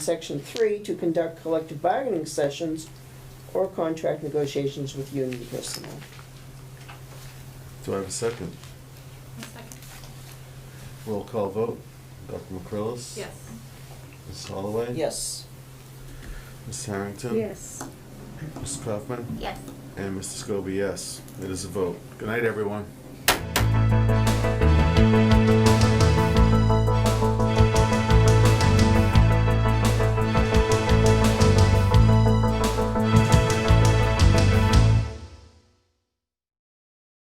Section three, to conduct collective bargaining sessions or contract negotiations with union personnel. Do I have a second? A second. Roll call vote. Dr. McCrillis? Yes. Ms. Holloway? Yes. Ms. Harrington? Yes. Ms. Kaufman? Yes. And Mr. Scobie, yes. It is a vote. Good night, everyone.